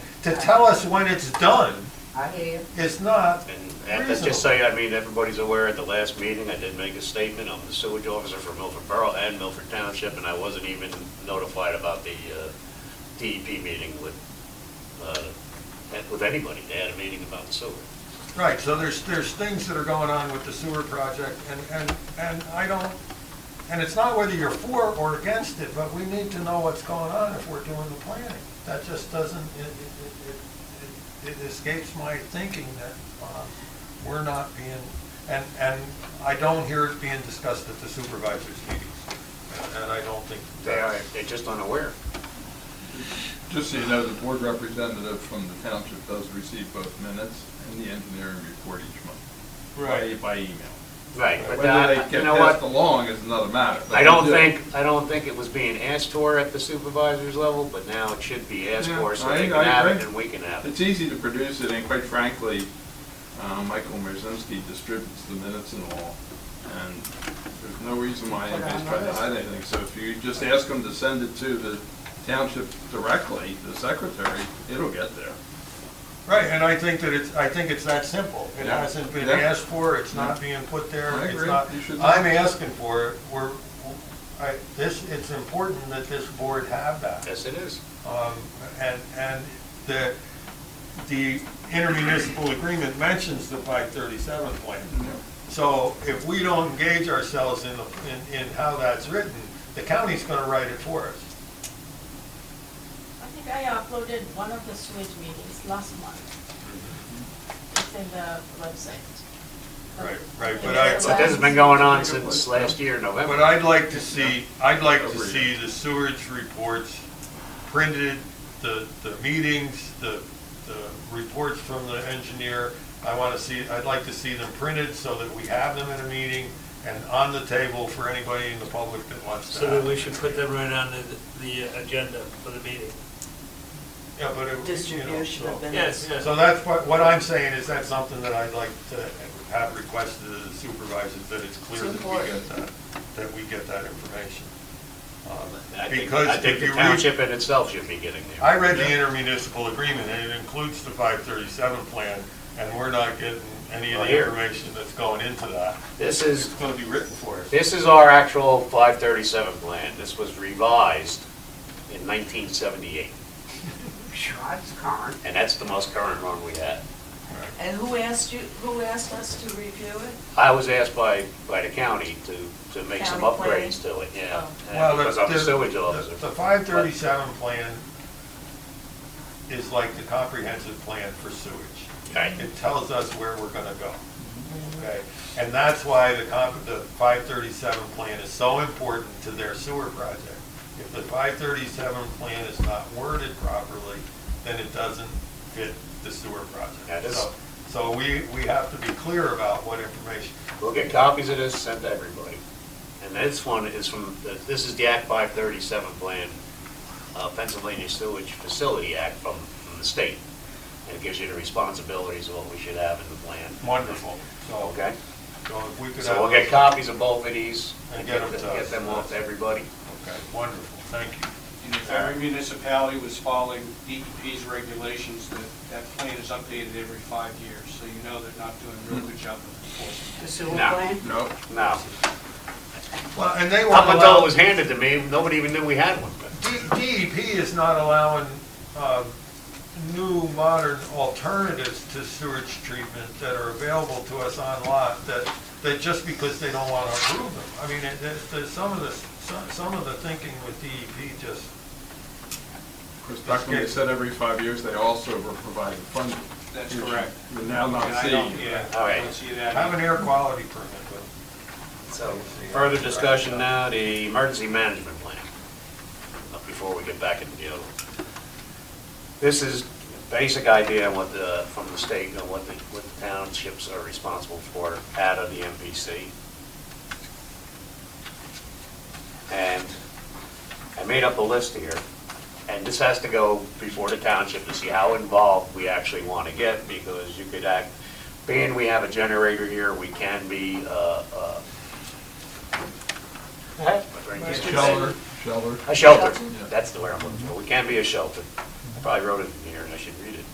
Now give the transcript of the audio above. to tell us when it's done I hear you. is not, And let's just say, I mean, everybody's aware at the last meeting, I did make a statement, I'm the sewage officer for Milford Borough and Milford Township, and I wasn't even notified about the uh, DEP meeting with, uh, with anybody. They had a meeting about the sewer. right, so there's, there's things that are going on with the sewer project, and, and, and I don't, and it's not whether you're for or against it, but we need to know what's going on if we're doing the planning. That just doesn't, it, it- it, it, it escapes my thinking that, uh, we're not being, and, and I don't hear it being discussed at the supervisors meetings, and- and I don't think. They are, they're just unaware. Just so you know, the board representative from the township does receive both minutes and the engineering report each month. by- By email. Right, but Whether uh, they you get know passed what? along is another matter. but I don't they do. think, I don't think it was being asked for at the supervisor's level, but now it should be asked Yeah, for, so I- they I can have it agree. and we can have it. It's easy to produce it, and quite frankly, uh, Michael Merzinski distributes the minutes and all, and there's no reason why Put it on anybody's the trying to list. hide anything. So if you just ask them to send it to the township directly, the secretary, it'll get there. Right, and I think that it's, I think it's that simple. It Yeah. hasn't been Yeah. asked for, it's not being put there. I it's agree. not- You should not. I'm asking for it, we're, I, this, it's important that this board have that. Yes, it is. Um, and, and the, the intermunicipal agreement mentions the five thirty-seven plan. So if we don't engage ourselves in, the- in, in how that's written, the county's gonna write it for us. I think I uploaded one of the sewage meetings last month. It's in the website. Right, right, but I- But this has been going on since last year, November. But I'd like to see, I'd like to see the sewage reports printed, the, the meetings, the, the reports from the engineer. I want to see, I'd like to see them printed so that we have them in a meeting and on the table for anybody in the public that wants to So then have. we it. should put them right on the, the agenda for the meeting. Yeah, but it, you know, Distribution of so. Yes, minutes. yes. So that's what, what I'm saying is that's something that I'd like to have requested of the supervisors, that it's clear that we get that, that we get that information. Um, I think, Because I think if the you read- township in itself should be getting I there. read the intermunicipal agreement, and it includes the 537 plan, and we're not getting any of Well, the here. information that's going into that. This It's is, going to be written for us. this is our actual 537 plan. This was revised in 1978, Sure, it's current. and that's the most current one we had. And who asked you, who asked us to review it? I was asked by, by the county to, to make some County planning? upgrades to it, yeah. Oh. and Well, the- Because I'm a the- sewage the- officer. The 537 plan is like the comprehensive plan for sewage. Right. It tells us where we're going to go. Okay? And that's why the comp, the 537 plan is so important to their sewer project. If the 537 plan is not worded properly, then it doesn't fit the sewer That project. is- So- So we, we have to be clear about what information. We'll get copies of this sent to everybody. And this one is from, this is the Act 537 plan, uh, Pennsylvania Sewage Facility Act from, from the state. And it gives you the responsibilities of what we should have in the plan. Wonderful. So, Okay? so if we could have. So we'll get those- copies of both of these and And get get them, them to us. get them off to everybody. Okay, wonderful, thank you. And if every municipality was following DEP's regulations, that, that plan is updated every five years, so you know they're not doing a real good job of enforcing. The sewer No. plan? No, No. Well, and they won't Up until it was allow, handed to me, nobody even knew we had one. D- DEP is not allowing, um, new modern alternatives to sewage treatment that are available to us on lot that, that just because they don't want to approve them. I mean, it- there's, there's some of the, some, some of the thinking with DEP just, of course, back when they said every five years, they also were providing funding. That's which correct. We're Mm-hmm. now And not I seeing. don't, yeah, All I right. don't see that. have an air quality permit, but So further discussion now, the emergency management plan, uh, before we get back into the other one. This is basic idea on what the, from the state, and what the, what the townships are responsible for out of the MVC. And I made up a list here, and this has to go before the township to see how involved we actually want to get, because you could act, being we have a generator here, we can be, uh, uh, Shelter, shelter. a shelter, that's the word I'm looking for. We can be a shelter. I probably wrote it in here and I should read